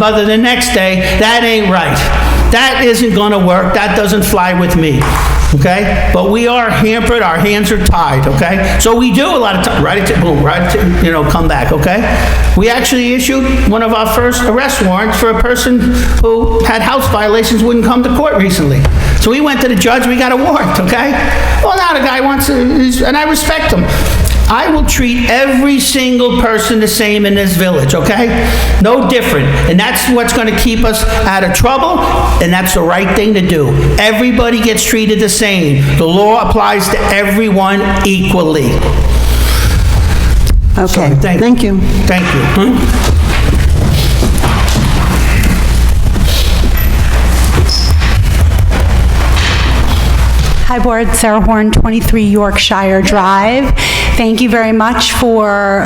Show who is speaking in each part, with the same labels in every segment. Speaker 1: But the next day, that ain't right. That isn't going to work. That doesn't fly with me. Okay? But we are hampered. Our hands are tied. Okay? So we do a lot of time. Right? it to- Boom. Right? it to- You know, come back. Okay? We actually issued one of our first arrest warrants for a person who had house violations, wouldn't come to court recently. So we went to the judge. We got a warrant. Okay? Well, now the guy wants to, and I respect him. I will treat every single person the same in this village, okay? No different. And that's what's gonna keep us out of trouble, and that's the right thing to do. Everybody gets treated the same. The law applies to everyone equally.
Speaker 2: Okay,
Speaker 1: Thank-
Speaker 2: thank you.
Speaker 1: Thank you. Hmm?
Speaker 3: Hi, Board. Sarah Horn, 23 Yorkshire Drive. Thank you very much for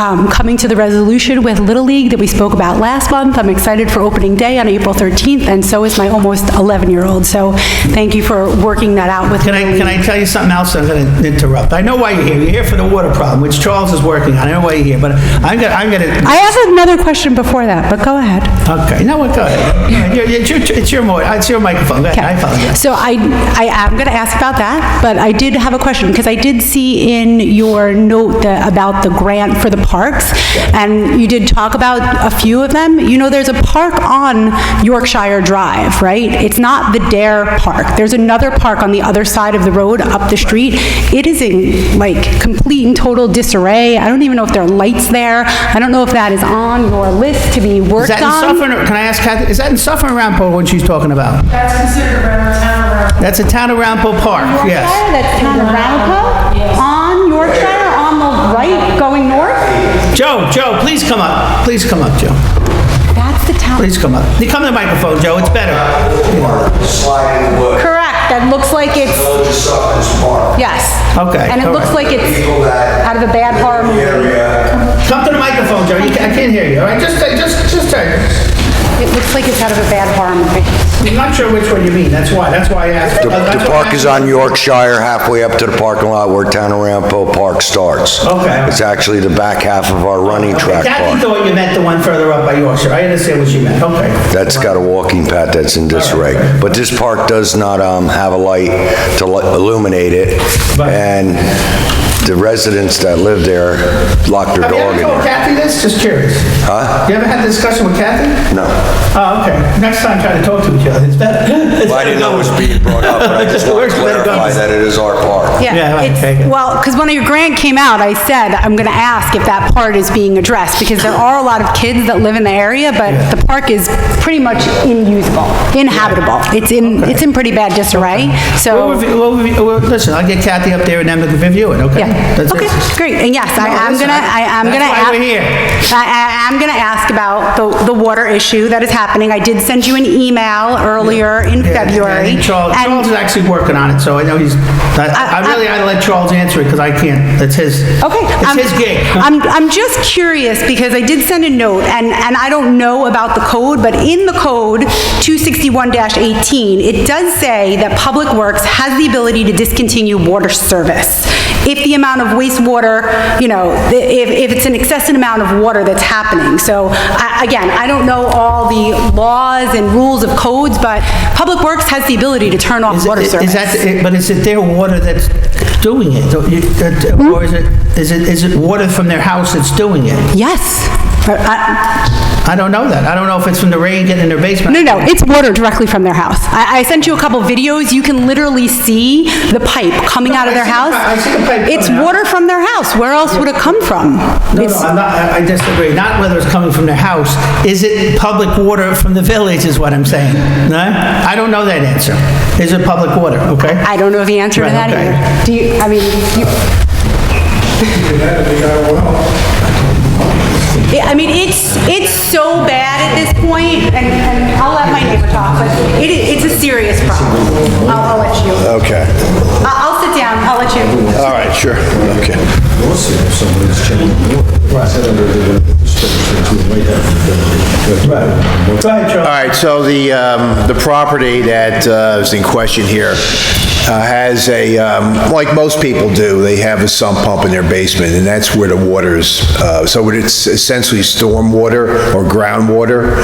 Speaker 3: um, coming to the resolution with Little League that we spoke about last month. I'm excited for opening day on April 13th, and so is my almost 11-year-old. So thank you for working that out with
Speaker 1: Can I,
Speaker 3: Little
Speaker 1: can I tell you something else? I'm gonna interrupt. I know why you're here. You're here for the water problem, which Charles is working on. I know why you're here, but I'm gonna, I'm gonna,
Speaker 3: I have another question before that, but go ahead.
Speaker 1: okay, no, go ahead. You're- It's your, it's your, mo- it's your microphone. Go ahead. I apologize.
Speaker 3: So I, I am going to ask about that, but I did have a question, because I did see in your note the- about the grant for the parks, and you did talk about a few of them. You know, there's a park on Yorkshire Drive, right? It's not the Dare Park. There's another park on the other side of the road, up the street. It is in, like, complete and total disarray. I don't even know if there are lights there. I don't know if that is on your list to be
Speaker 1: Is
Speaker 3: worked on.
Speaker 1: that in Suffern, or- can I ask Kathy, is that in Suffern or Rampo what she's talking about?
Speaker 4: That's considered around town around.
Speaker 1: That's a town of Rampo Park, yes.
Speaker 3: Yorkshire, that's kind of Arapahoe, on Yorkshire, on the right, going north?
Speaker 1: Joe, Joe, please come up, please come up, Joe,
Speaker 3: That's the town.
Speaker 1: please come up. You Come to the microphone, Joe, it's better.
Speaker 5: sliding wood,
Speaker 3: Correct, that looks like it's,
Speaker 5: village of Suffern's Park.
Speaker 3: yes.
Speaker 1: Okay,
Speaker 3: And it
Speaker 1: all
Speaker 3: looks
Speaker 1: right.
Speaker 3: like it's
Speaker 5: People that
Speaker 3: out of a bad horror
Speaker 5: in the
Speaker 3: movie.
Speaker 5: area,
Speaker 1: Come to the microphone, Joe, You ca- I can't hear you, all right, just, just, just, turn.
Speaker 3: It looks like it's out of a bad horror movie.
Speaker 1: I'm not sure which one you mean, that's why, that's why I asked.
Speaker 5: the
Speaker 1: that's
Speaker 5: the
Speaker 1: why I
Speaker 5: park is
Speaker 1: asked.
Speaker 5: on Yorkshire, halfway up to the parking lot where Town of Rampo Park starts.
Speaker 1: Okay.
Speaker 5: It's actually the back half of our running track
Speaker 1: Kathy
Speaker 5: park.
Speaker 1: thought you meant the one further up by Yorkshire, I understand what you meant, okay.
Speaker 5: That's got a walking path that's in disarray. But this park does not um, have a light to li- illuminate it,
Speaker 1: Right.
Speaker 5: and the residents that live there lock their
Speaker 1: Have you
Speaker 5: dog
Speaker 1: ever
Speaker 5: in
Speaker 1: told
Speaker 5: there.
Speaker 1: Kathy this, just curious?
Speaker 5: Huh?
Speaker 1: You ever had a discussion with Kathy?
Speaker 5: No.
Speaker 1: Oh, okay, next time try to talk to each other, it's better. It's
Speaker 5: Well, I didn't know it was being brought up, but I just want to clarify that it is our park.
Speaker 1: Yeah,
Speaker 3: Yeah,
Speaker 1: right, okay, good.
Speaker 3: it's, well, because when your grant came out, I said, I'm going to ask if that part is being addressed, because there are a lot of kids that live in the area, but the park is pretty much inusable, inhabitable. It's in, it's in pretty bad disarray, so...
Speaker 1: We'll review, we'll review, well, listen, I'll get Kathy up there and then we'll review it, okay?
Speaker 3: Yeah,
Speaker 1: That's it.
Speaker 3: okay, great, and yes, I
Speaker 1: No,
Speaker 3: am
Speaker 1: listen,
Speaker 3: gonna, I am gonna.
Speaker 1: that's why
Speaker 3: ask-
Speaker 1: we're here.
Speaker 3: I, I am gonna ask about the, the water issue that is happening. I did send you an email earlier in
Speaker 1: Yeah, yeah,
Speaker 3: February.
Speaker 1: and Charles,
Speaker 3: and-
Speaker 1: Charles is actually working on it, so I know he's, I I
Speaker 3: I-
Speaker 1: really, I let Charles answer it because I can't, that's his,
Speaker 3: Okay. I'm-
Speaker 1: it's his gig.
Speaker 3: I'm, I'm just curious, because I did send a note, and, and I don't know about the code, but in the code, 261-18, it does say that Public Works has the ability to discontinue water service if the amount of wastewater, you know, the- if, if it's an excessive amount of water that's happening. So, I- again, I don't know all the laws and rules of codes, but Public Works has the ability to turn off
Speaker 1: Is it-
Speaker 3: water
Speaker 1: is
Speaker 3: service.
Speaker 1: that- it- But is it their water that's doing it? So you- that- Or is it, is it, is it water from their house that's doing it?
Speaker 3: Yes. I- I-
Speaker 1: I don't know that. I don't know if it's from the rain getting in their basement.
Speaker 3: No, no, it's water directly from their house. I, I sent you a couple videos, you can literally see the pipe coming out of
Speaker 1: I
Speaker 3: their
Speaker 1: see the
Speaker 3: house.
Speaker 1: pi- I see the pipe
Speaker 3: It's
Speaker 1: coming out.
Speaker 3: water from their house, where else would it come from?
Speaker 1: No, no,
Speaker 3: It's-
Speaker 1: I'm not, I I disagree. Not whether it's coming from their house. Is it public water from the village is what I'm saying. No? I don't know that answer. Is it public water, okay?
Speaker 3: I don't know the answer to
Speaker 1: Right,
Speaker 3: that
Speaker 1: okay.
Speaker 3: either. Do you, I mean, you... Yeah, I mean, it's, it's so bad at this point, and, and I'll let my neighbor talk, but it, i- it's a serious problem. I'll, I'll let you, I-
Speaker 6: Okay,
Speaker 3: I'll sit down, I'll let you.
Speaker 6: all right, sure, okay. All right, so the, um, the property that uh, is in question here,
Speaker 5: uh, has a, um, like most people do, they have a sump pump in their basement, and that's where the water's, uh, so it's essentially storm water or groundwater